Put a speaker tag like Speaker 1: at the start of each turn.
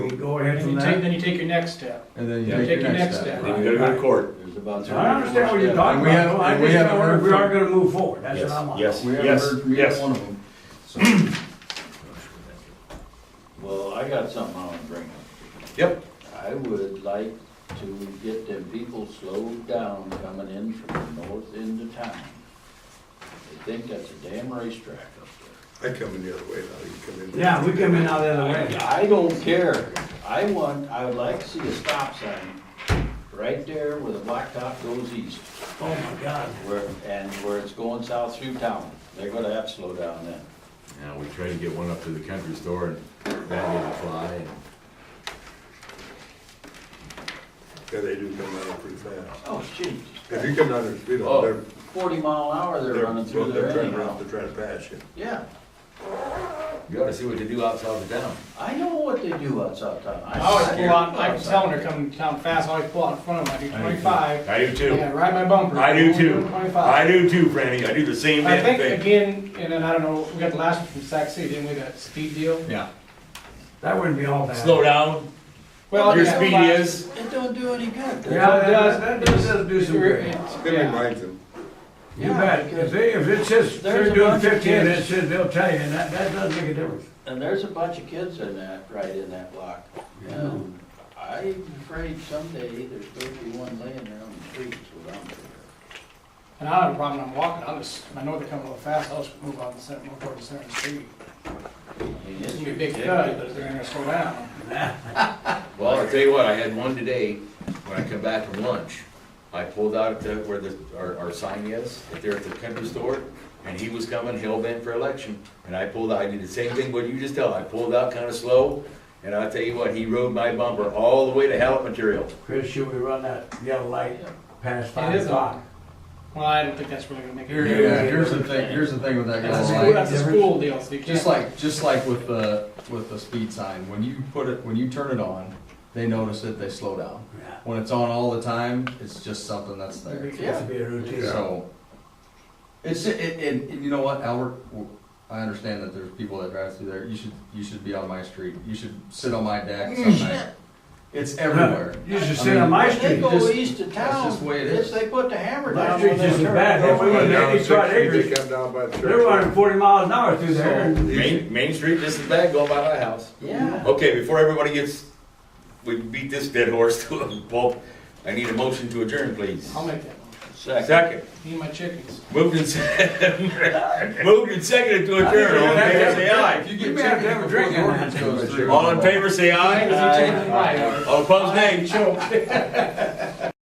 Speaker 1: ahead
Speaker 2: Then
Speaker 1: from
Speaker 2: you take,
Speaker 1: that,
Speaker 2: then you take your next step.
Speaker 1: and then you
Speaker 2: Yeah,
Speaker 1: take your next step.
Speaker 3: Then you gotta go to court.
Speaker 4: There's
Speaker 1: I
Speaker 4: about. three or
Speaker 1: understand
Speaker 4: four
Speaker 1: what you're
Speaker 4: steps.
Speaker 1: talking And we about, haven't-
Speaker 4: I
Speaker 1: I
Speaker 4: just
Speaker 1: just
Speaker 4: know
Speaker 1: know
Speaker 4: we're-
Speaker 1: we are gonna move forward, that's
Speaker 3: Yes,
Speaker 1: what I'm on.
Speaker 3: yes,
Speaker 1: We haven't
Speaker 3: yes,
Speaker 1: heard from
Speaker 3: yes.
Speaker 1: either one of them.
Speaker 4: Well, I got something I wanna bring up.
Speaker 3: Yep.
Speaker 4: I would like to get them people slowed down coming in from the north end of town. They think that's a damn racetrack up there.
Speaker 5: I come in the other way now, you come in.
Speaker 1: Yeah, we come in out the other way.
Speaker 4: I don't care. I want, I would like to see a stop sign right there where the blacktop goes east,
Speaker 1: Oh my God.
Speaker 4: where, and where it's going south through town. They're gonna have to slow down then.
Speaker 6: Yeah, we tried to get one up to the country store and that didn't fly and
Speaker 5: Yeah, they do come down pretty fast.
Speaker 4: Oh, jeez.
Speaker 5: If you come down the street,
Speaker 4: Oh,
Speaker 5: they're,
Speaker 4: Forty mile an hour they're running
Speaker 5: they're,
Speaker 4: through
Speaker 5: they're
Speaker 4: there
Speaker 5: trying
Speaker 4: anyhow.
Speaker 5: to, they're trying to pass you.
Speaker 4: Yeah,
Speaker 6: you ought to see what they do outside of town.
Speaker 4: I know what they do outside town.
Speaker 2: I always
Speaker 4: I-
Speaker 2: pull out, I was telling her coming down fast, I always pull out in front of them, I do twenty-five.
Speaker 3: I do too.
Speaker 2: Yeah, ride my bumper.
Speaker 3: I do too. I
Speaker 2: Twenty-five.
Speaker 3: do too, Franny. I do the same
Speaker 2: I
Speaker 3: damn
Speaker 2: think
Speaker 3: thing.
Speaker 2: again, and then I don't know, we got the last one from Sac City, didn't we, that speed deal?
Speaker 3: Yeah.
Speaker 1: That wouldn't be all bad.
Speaker 3: Slow down.
Speaker 2: Well,
Speaker 3: Your
Speaker 2: yeah,
Speaker 3: speed
Speaker 2: but-
Speaker 3: is.
Speaker 4: It don't do any good. does it?
Speaker 1: Yeah, that, that does that do some good.
Speaker 5: It
Speaker 2: Yeah.
Speaker 5: reminds them,
Speaker 1: You
Speaker 4: Yeah,
Speaker 1: bet,
Speaker 4: because
Speaker 1: if they, if it says
Speaker 4: there's
Speaker 1: they're
Speaker 4: a
Speaker 1: doing
Speaker 4: bunch of
Speaker 1: fifteen, it
Speaker 4: kids.
Speaker 1: says, they'll tell you, and that, that does make a difference.
Speaker 4: And there's a bunch of kids in that, right in that block. And I'm afraid someday there's going to be one laying there on the streets without them.
Speaker 2: And I don't have a problem, I'm walking, I'll just, I know they're coming a little fast, I'll just move out the center, move toward the center of the street.
Speaker 4: I mean,
Speaker 2: It's
Speaker 4: it's
Speaker 2: gonna be a big thud, but
Speaker 4: ridiculous.
Speaker 2: they're gonna slow down.
Speaker 6: Well, I'll tell you what, I had one today, when I come back from lunch, I pulled out at the, where the, our, our sign is, up there at the country store, and he was coming hell bent for election, and I pulled out, I did the same thing, what you just tell, I pulled out kinda slow, and I'll tell you what, he rode my bumper all the way to Hallett Material.
Speaker 1: Chris, should we run that yellow light past
Speaker 2: It
Speaker 1: five
Speaker 2: is
Speaker 1: o'clock?
Speaker 2: Well, I don't think that's really gonna make
Speaker 7: Here,
Speaker 2: it.
Speaker 7: here- here's the thing, here's the thing with that
Speaker 2: That's a
Speaker 7: yellow
Speaker 2: school,
Speaker 7: light.
Speaker 2: that's a school deal, so you
Speaker 7: Just
Speaker 2: can't,
Speaker 7: like, just like with the, with the speed sign, when you put it, when you turn it on, they notice it, they slow down.
Speaker 1: Yeah.
Speaker 7: When it's on all the time, it's just something that's there.
Speaker 1: It has to be a routine.
Speaker 7: So, it's, it, and, and you know what, Albert, I understand that there's people that drive through there, you should, you should be on my street, you should sit on my deck some night. It's everywhere.
Speaker 1: You should sit on my
Speaker 4: When they
Speaker 1: street.
Speaker 4: go
Speaker 7: just-
Speaker 4: east of
Speaker 7: that's
Speaker 4: town,
Speaker 7: just the way it
Speaker 4: it's,
Speaker 7: is.
Speaker 4: they put the hammer
Speaker 1: My
Speaker 4: down.
Speaker 1: street's
Speaker 4: when they
Speaker 1: just as
Speaker 4: turn.
Speaker 1: bad.
Speaker 5: They
Speaker 1: If we
Speaker 5: come
Speaker 1: were
Speaker 5: down
Speaker 1: in
Speaker 5: the
Speaker 1: eighty-five
Speaker 5: street, they
Speaker 1: acres,
Speaker 5: come down by the church.
Speaker 1: they're running forty miles an hour through there. and-
Speaker 3: Main, Main Street just as bad going by my house.
Speaker 4: Yeah.
Speaker 3: Okay, before everybody gets, we beat this dead horse to a pulp, I need a motion to adjourn, please.
Speaker 2: I'll make that one.
Speaker 4: Second.
Speaker 3: Second,
Speaker 2: Need my chickens.
Speaker 3: moved and seconded, moved and seconded to adjourn, all in favor say aye.
Speaker 7: If you
Speaker 1: We
Speaker 7: get
Speaker 1: may have to have a
Speaker 7: chicken
Speaker 1: drink
Speaker 7: before the
Speaker 1: in
Speaker 7: ordinance goes through.
Speaker 3: All in favor say
Speaker 2: Because
Speaker 3: aye.
Speaker 2: you're taking my hour.
Speaker 3: All opposed, nay.
Speaker 2: Sure.